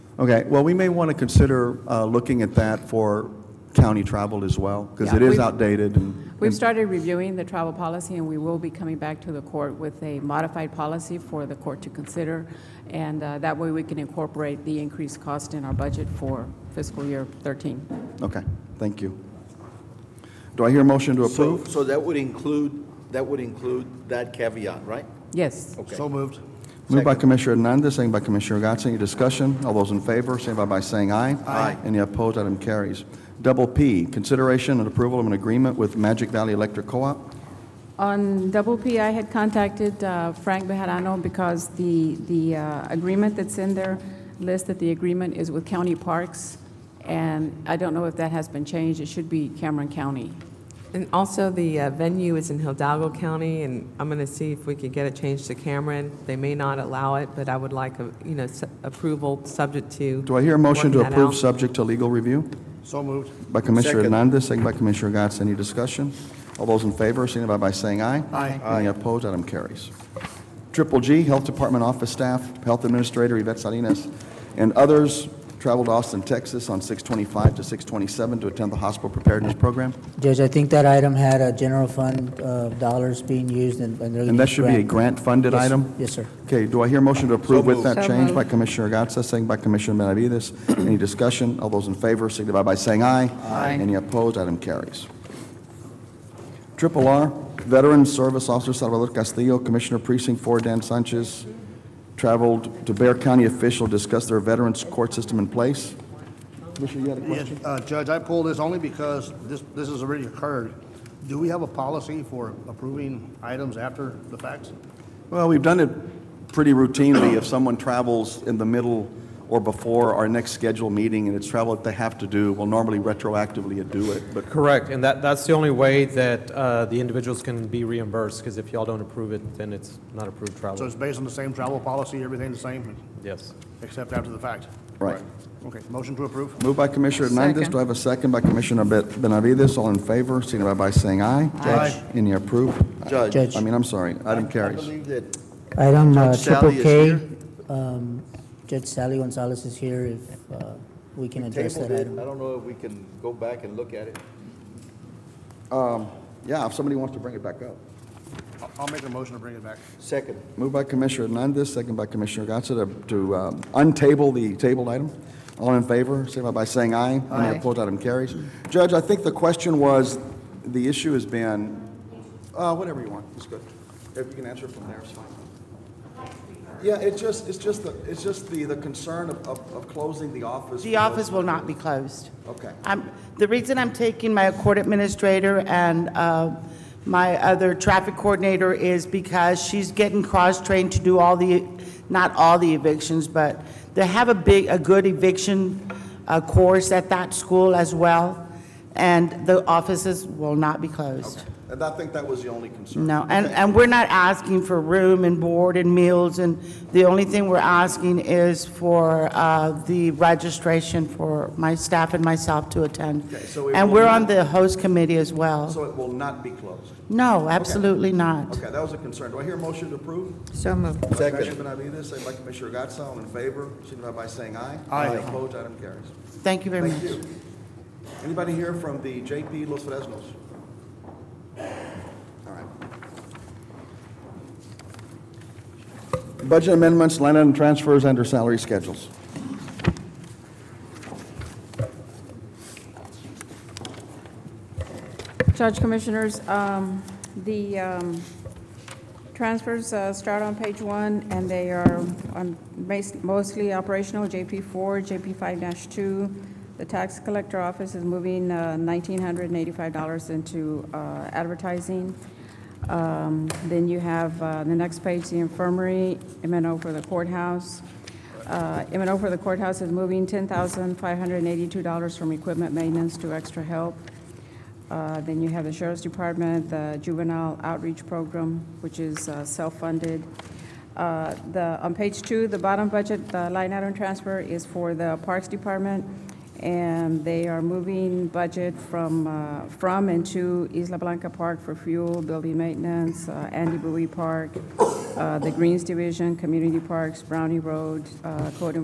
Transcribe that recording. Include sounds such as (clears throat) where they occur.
Okay, well, we may want to consider uh, looking at that for county travel as well, because Yeah, it is we've- outdated and... We've and- started reviewing the travel policy, and we will be coming back to the court with a modified policy for the court to consider, and uh, that way we can incorporate the increased cost in our budget for fiscal year 13. Okay, thank you. Do I hear a motion to So, approve? so that would include, that would include that caveat, right? Yes. Okay. So moved. Moved by Commissioner Hernandez, second by Commissioner Gatz. Any discussion? All those in favor, signify by saying aye. Aye. Any opposed, item carries. Double P, consideration and approval of an agreement with Magic Valley Electric Co-op. On Double P, I had contacted uh, Frank Bejarano because the, the uh, agreement that's in there lists that the agreement is with county parks, and I don't know if that has been changed. It should be Cameron County. And also, the uh, venue is in Hidalgo County, and I'm going to see if we could get it changed to Cameron. They may not allow it, but I would like, a you know, su- approval subject to. Do I hear a motion to working that approve out. subject to legal review? So moved. By Commissioner Second. Hernandez, second by Commissioner Gatz. Any discussion? All those in favor, signify by saying aye. Aye. Any opposed, item carries. Triple G, Health Department Office Staff, Health Administrator Yvette Salinas, and others traveled to Austin, Texas on 625 to 627 to attend the hospital preparedness program. Judge, I think that item had a general fund uh, dollars being used and and they're... And that should be a grant-funded Yes, item? Yes, sir. Okay, do I hear a motion to approve with that So change moved. by Commissioner Gatsa, second by Commissioner (clears throat) Benavides? Any discussion? All those in favor signify by saying aye. Aye. Any opposed? Item carries. Triple R, Veteran Service Officer Salvador Castillo, Commissioner Precinct 4 Dan Sanchez, traveled to Bear County official to discuss their veterans court system in place. Commissioner, you had a Yes, question? uh, Judge, I pulled this only because this, this has already occurred. Do we have a policy for approving items after the facts? Well, we've done it pretty routinely. If someone travels in the middle or before our next scheduled meeting and it's travel that they have to do, we'll normally retroactively do it, but Correct, and that, that's the only way that uh, the individuals can be reimbursed, because if y'all don't approve it, then it's not approved So travel. it's based on the same travel policy, everything the same, Yes. except after the fact? Right. Okay, motion to approve? Moved by Commissioner Hernandez. Do I have a second by Commissioner Ben- Benavides? All in favor, signify by saying aye. Aye. Any approved? Judge. I mean, I'm sorry, item I carries. believe that Item uh, Judge Sally triple is K, here. um, Judge Sally Gonzalez is here if uh, we can address tabled that it, item. I don't know if we can go back and look at it. Yeah, if somebody wants to bring it back up. I'll- I'll make a motion to bring it back. Second, Moved by Commissioner Hernandez, second by Commissioner Gatsa to- to um, untable the tabled item. All in favor, signify by saying aye. Any opposed, item carries. Judge, I think the question was, the issue has been, uh, whatever you want, it's good. If you can answer from there, it's fine. Yeah, it's just, it's just, the it's just the, the concern of, of of closing the office. The office will not be closed. Okay. I'm, the reason I'm taking my court administrator and uh, my other traffic coordinator is because she's getting cross-trained to do all the, not all the evictions, but they have a big, a good eviction uh, course at that school as well, and the offices will not be closed. And I think that was the only concern. No, and, and we're not asking for room and board and meals, and the only thing we're asking is for uh, the registration for my staff and myself to attend. so it And will we're not- on the host committee as well. So it will not be closed. No, absolutely not. Okay, that was a concern. Do I hear a motion to approve? So moved. Commissioner Benavides, second by Commissioner Gatsa, all in favor, signify by saying aye. Aye. Opposed, item carries. Thank you very much. Thank you. Anybody here from the JP Los Fresnos? All right. Budget amendments, line item transfers, and/or salary schedules. Judge Commissioners, um, the um, transfers uh, start on page one, and they are on bas- mostly operational, JP four, JP five two. The tax collector office is moving uh, nineteen hundred and eighty-five dollars into uh, advertising. Um, Then you have, uh, the next page, the infirmary, M and O for the courthouse. Uh, M and O for the courthouse is moving ten thousand five hundred and eighty-two dollars from equipment maintenance to extra help. Uh, Then you have the Sheriff's Department, the Juvenile Outreach Program, which is uh, self-funded. Uh, The, on page two, the bottom budget, the line item transfer is for the Parks Department, and they are moving budget from, uh, from and to Isla Blanca Park for fuel, building maintenance, uh, Andy Bowie Park, uh, the Greens Division, Community Parks, Brownie Road, uh, Code